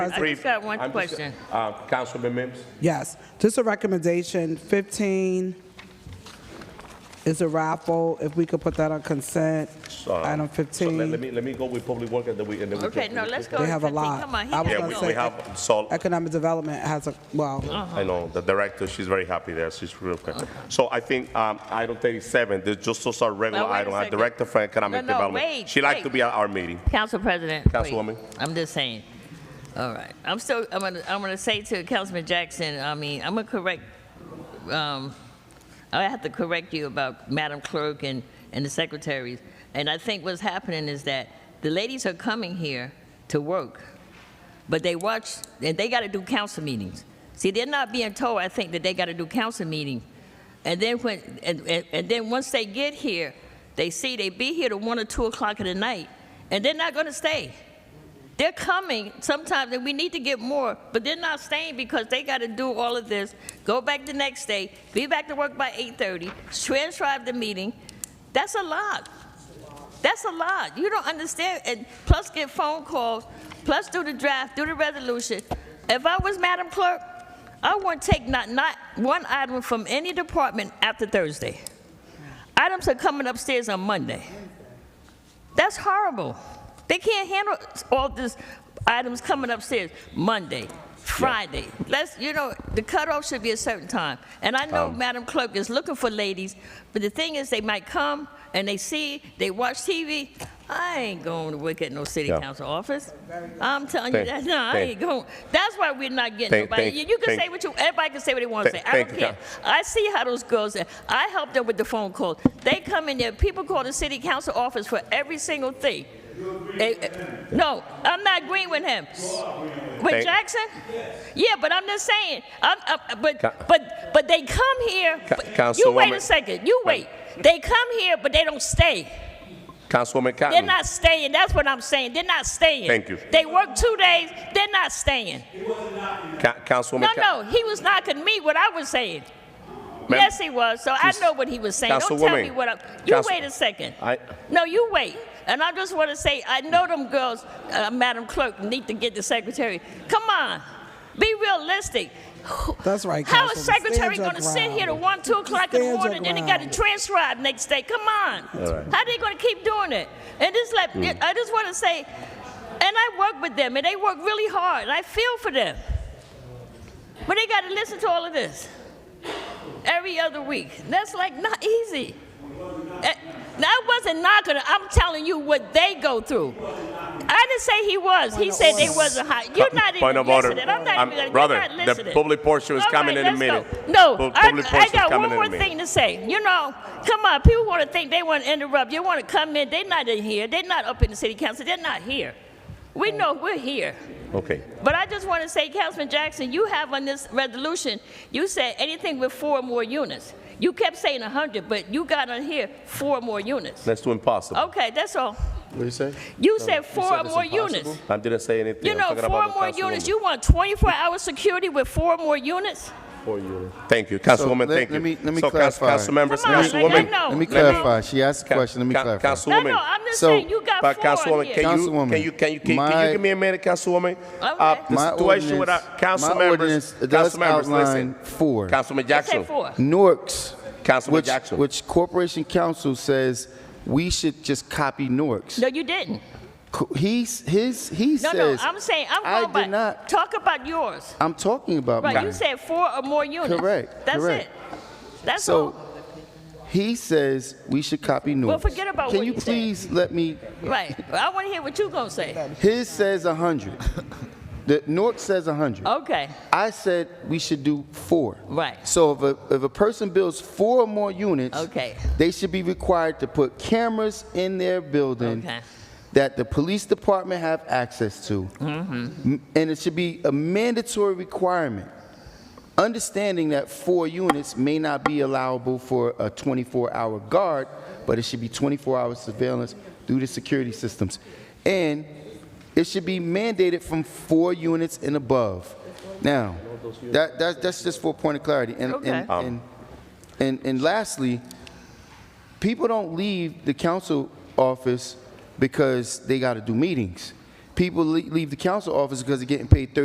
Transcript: I just got one I'm just- question. uh, Councilman Mims? Yes, just a recommendation, 15 is a raffle, if we could put that on consent, So, so item let- Let 15. me, let me go with public work and then we, and then we. Okay, go- no, let's go. They have a 15. lot. Come on, he I was gotta Yeah, we, go. gonna we say- have, so, Economic Development has a, well, I know, the director, she's very happy there, she's real quick. So I think, um, item thirty-seven, this just those are regular Now, wait a item, our second. director for economic No, no, development. wait, She liked wait. to be at our meeting. Council President. wait. Councilwoman. I'm just saying. All right. I'm still, I'm gonna, I'm gonna say to Councilman Jackson, I mean, I'm gonna correct, um, I have to correct you about Madam Clerk and, and the secretaries. And I think what's happening is that the ladies are coming here to work, but they watch, and they gotta do council meetings. See, they're not being told, I think, that they gotta do council meeting. And then when, and, and, and then once they get here, they see they be here to one or two o'clock in the night, and they're not gonna stay. They're coming sometimes, and we need to get more, but they're not staying because they got to do all of this, go back the next day, be back to work by 8:30, transcribe the meeting. That's a lot. That's a lot. You don't understand. And plus get phone calls, plus do the draft, do the resolution. If I was Madam Clerk, I wouldn't take not, not one item from any department after Thursday. Items are coming upstairs on Monday. That's horrible. They can't handle all this items coming upstairs Monday, Friday. Let's, you know, the cutoff should be a certain time. And I Um. know Madam Clerk is looking for ladies, but the thing is, they might come and they see, they watch TV. I ain't going to work at no city Yeah. council office. I'm telling you that. Thank- No, I thank- ain't going. That's why we're not getting Thank- nobody. thank- you, you can thank- say what you. Everybody can say what they want to Th- say. I don't thank you, care. I see how those girls. Are. I help them with the phone calls. They come in there. People call the city council office for every single thing. Eh, eh, no, I'm not agreeing with him. With Thank- Jackson? Yeah, but I'm just saying. I'm, i but Ca- but but they come here. Ca- but- you wait a Councilwoman- second. You wait. They come here, but they don't stay. Councilwoman They're Cotton, not staying. That's what I'm saying. They're not staying. Thank you. They work two days. They're not staying. Ca- Councilwoman. No, Ca- no, he was knocking me what I was saying. Ma'am, yes, he was. So I she's- know what he was saying. Don't tell Councilwoman, me what I'm. You Council- Uh, wait a second. I- no, you wait. And I just want to say, I know them girls, uh, Madam Clerk, need to get the secretary. Come on, be realistic. That's right, How is Councilwoman. secretary Stand your going to sit here to ground. one, two o'clock in the Stand your morning, then he got to ground. transcribe next day? Come on. right. Hmm. How they going to keep doing it? And just let I just want to say, and I work with them, and they work really hard, and I feel for them. But they got to listen to all of this every other week. That's like not easy. Eh, That wasn't not gonna. I'm telling you what they go through. I didn't say he was. He said they wasn't hot. You're not Point even of order. listening. I'm not Um, even. you're brother, not the listening. public portion is All coming in right, a let's go. minute. No, Pub- I, public I portion is got coming one in a more minute. thing to say. You know, come on. People want to think they want to interrupt. You want to come in. They're not in here. They're not up in the city council. They're not here. We know we're here. Okay, But I just want to say, Councilman Jackson, you have on this resolution, you said anything with four or more units. You kept saying 100, but you got on here four or more units. let's do impossible. Okay, that's all. What did you say? You said four or more units. I didn't say anything. You I'm know, talking four or about the more units, Councilwoman. you want 24-hour security with four or more units? Thank you, Councilwoman, let- thank you. let me- let me So, Council- clarify. Councilmembers, Come on, Councilwoman. let- no, Let me no. clarify. She asked a question. Let me Ca- clarify. No, Councilwoman. no, I'm just So, saying, you got But four on Councilwoman, here. can you, Councilwoman, can you, can you, can can you my- give me a minute, Councilwoman? Uh, Okay. The My situation with our ordinance- council my members, ordinance does council members, listen. outline four. Councilman Let's say Jackson. four. Norks, Councilman which, Jackson. which Corporation Council says we should just copy Norks. No, you didn't. Co- He's, his, he No, says. no, I'm saying, I I'm did going by, not. talk about yours. I'm talking about Right, you mine. said four or more units. Correct, That's correct. it. That's all. So he says we should copy Norks. forget about Can what you he said. please let me Right. Well, I want to hear what you going to say. His says 100. The North says 100. Okay. I said we should do four. Right. So if a, if a person builds four or more units, Okay. they should be required to put cameras in their building Okay. that the police department have access to. Mm-hmm. M- And it should be a mandatory requirement. Understanding that four units may not be allowable for a 24-hour guard, but it should be 24-hour surveillance through the security systems. And it should be mandated from four units and above. Now, that, that, that's just for a point of clarity. And, and, Okay. and, and, and lastly, people don't leave the council office because they got to do meetings. people le- leave the council office because they're getting paid